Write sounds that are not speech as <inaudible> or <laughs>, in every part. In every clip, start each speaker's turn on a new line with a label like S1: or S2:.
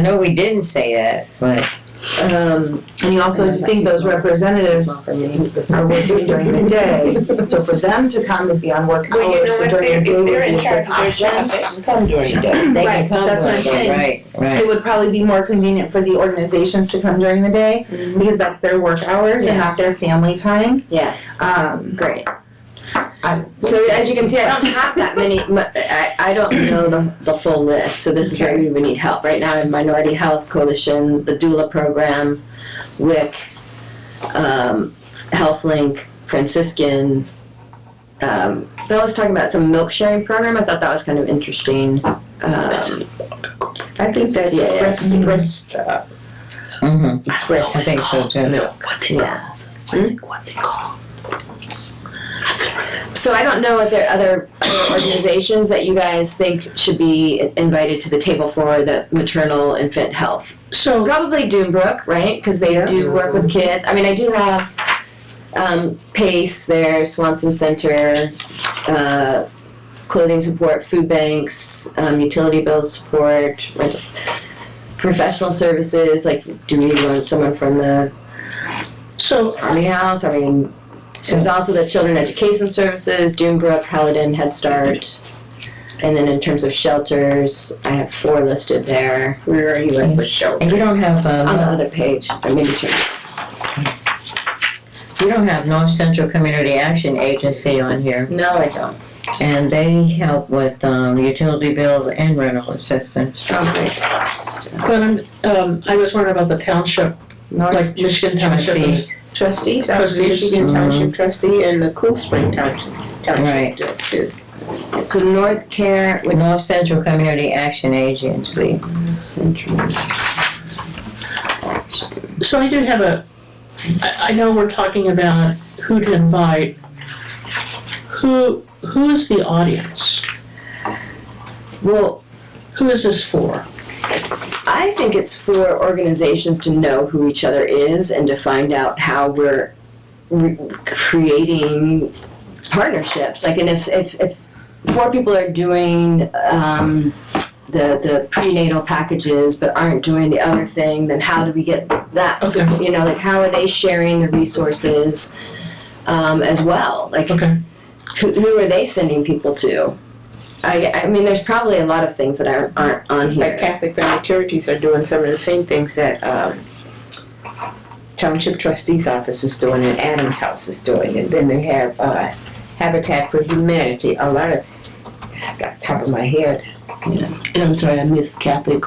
S1: know we didn't say that, but
S2: Um, and you also
S3: That's not
S2: think
S3: too
S2: those
S3: small.
S2: representatives
S3: Small for me.
S2: are working during the day, so for them to come and be on work
S4: Well, you know,
S2: hours
S4: if
S2: and during
S4: they're,
S2: the
S4: if
S2: day would be
S4: they're
S2: a
S4: in charge
S2: good
S4: of their job,
S2: option.
S4: they can come during the day.
S1: they can
S2: Right,
S1: come.
S2: that's what I'm
S1: during the-
S2: saying.
S1: Right,
S2: It
S1: right.
S2: would probably be more convenient for the organizations to come during the day,
S4: Mm-hmm.
S2: because that's their work hours and
S3: Yeah.
S2: not their family time,
S3: Yes,
S2: um,
S3: great.
S2: I-
S3: So as you can see, I don't have that many, mu- I, I don't know the, the full list, so this is where we would need help. Right now, I have Minority Health Coalition, the doula program, WIC, um, HealthLink, Franciscan. Um, I was talking about some milk sharing program, I thought that was kind of interesting. Um,
S4: I think that's
S3: Yeah.
S4: breast, breast, uh,
S1: Mhm. I
S3: Chris,
S1: think so too.
S3: yeah.
S4: what's it called?
S3: So I don't know if there are other, other organizations that you guys think should be invited to the table for the maternal infant health.
S4: So,
S3: Probably Doombrook, right? Because they
S4: Yeah.
S3: do work with kids. I mean, I do have um, Pace there, Swanson Center, uh, clothing support, food banks, um, utility bill support, rental, professional services. Like, do we want someone from the
S4: so,
S3: Army House. I mean, there's also the Children Education Services, Doombrook, Paladin, Head Start. And then in terms of shelters, I have four listed there
S4: where are you at with
S1: And
S4: shelter?
S1: you don't have,
S3: on the
S2: Uh-huh.
S1: um,
S3: other page. Or maybe two.
S1: you don't have North Central Community Action Agency on here,
S3: No, I don't.
S1: and they help with, um, utility bills and rental assistance.
S3: Oh, great.
S5: But I'm, um, I was wondering about the township,
S3: North,
S5: like Michigan Township is,
S1: Trustees.
S4: Trustees, I'm the
S5: Trustees.
S4: Michigan
S1: Mhm.
S4: Township trustee and the Cool Spring Township,
S1: Right.
S4: Township does too.
S3: so North Care with
S1: North Central Community Action Agency.
S3: Central.
S5: so I do have a, I, I know we're talking about who to invite. Who, who is the audience?
S3: Well,
S5: Who is this for?
S3: I think it's for organizations to know who each other is and to find out how we're re- creating partnerships. Like, and if, if, if four people are doing um, the, the prenatal packages but aren't doing the other thing, then how do we get that?
S5: Okay.
S3: You know, like, how are they sharing the resources um, as well? Like,
S5: Okay,
S3: who, who are they sending people to? I, I mean, there's probably a lot of things that aren't, aren't on
S4: It's
S3: here.
S4: Like Catholic family charities are doing some of the same things that, um, Township Trustees Office is doing and Adams House is doing, and then they have, uh, Habitat for Humanity, a lot of, stuff top of my head,
S3: And I'm sorry, I missed Catholic.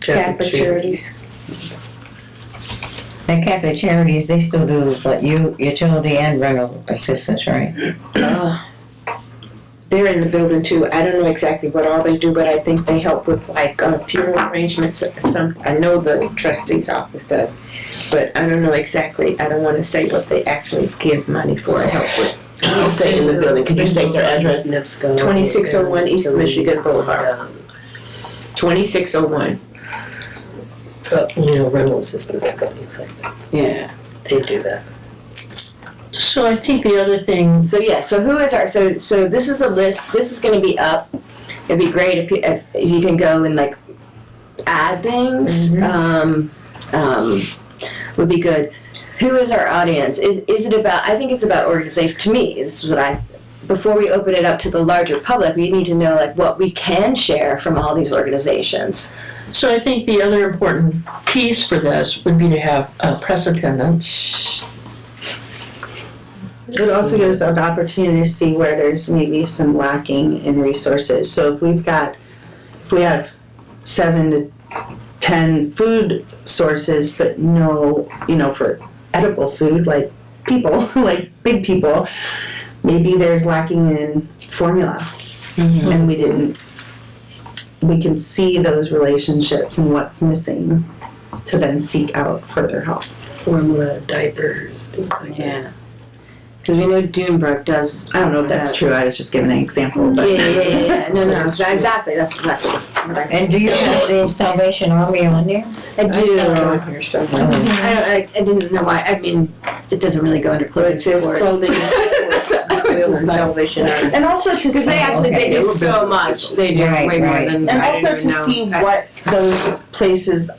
S4: Catholic charities.
S1: And Catholic Charities, they still do, but you, utility and rental assistance, right?
S4: Uh, They're in the building too, I don't know exactly what all they do, but I think they help with like uh, funeral arrangements, uh, some, I know the trustees office does, but I don't know exactly, I don't wanna say what they actually give money for, or help with.
S6: Can you state in the building? Can you state their address?
S4: Nipsco. Twenty-six oh one East Michigan Boulevard.
S3: um,
S4: Twenty-six oh one.
S6: Uh, You know, rental assistance, things like that.
S3: Yeah.
S6: They do that.
S5: so I think the other thing,
S3: So yeah, so who is our so so this is a list. This is going to be up. It'd be great if you, if if you can go and like add things. Um, um, would be good. Who is our audience? Is is it about? I think it's about organization. To me, this is what I. Before we open it up to the larger public, we need to know like what we can share from all these organizations.
S5: so I think the other important piece for this would be to have a press attendance.
S2: It also gives an opportunity to see where there's maybe some lacking in resources. So if we've got, if we have seven to ten food sources, but no, you know, for edible food, like people, <laughs> like big people, maybe there's lacking in formula. And we didn't, we can see those relationships and what's missing to then seek out further help.
S6: Formula, diapers, things like that.
S3: Because we know Dunebrook does.
S2: I don't know if that's true, I was just giving an example,
S3: Yeah,
S2: but.
S3: yeah, yeah, yeah, yeah. No, no, exactly. <laughs> That's exactly what I,
S1: And do you have the Salvation Army on there?
S3: I do.
S4: <laughs> Here somewhere.
S1: Oh,
S3: I, don't, I, I didn't know why. I mean, it doesn't really go under
S4: But
S3: clothing
S4: it says
S3: support. <laughs>
S4: clothing.
S3: That's what I was
S4: Wheels
S3: just
S4: and
S3: like-
S4: Salvation Army.
S2: And also to
S3: Because
S2: see,
S3: they actually
S1: Okay.
S3: they do so much. They do
S1: Right,
S3: way
S1: right.
S3: more than
S2: and
S3: I
S2: also
S3: didn't
S2: to
S3: know.
S2: see
S3: I-
S2: what those places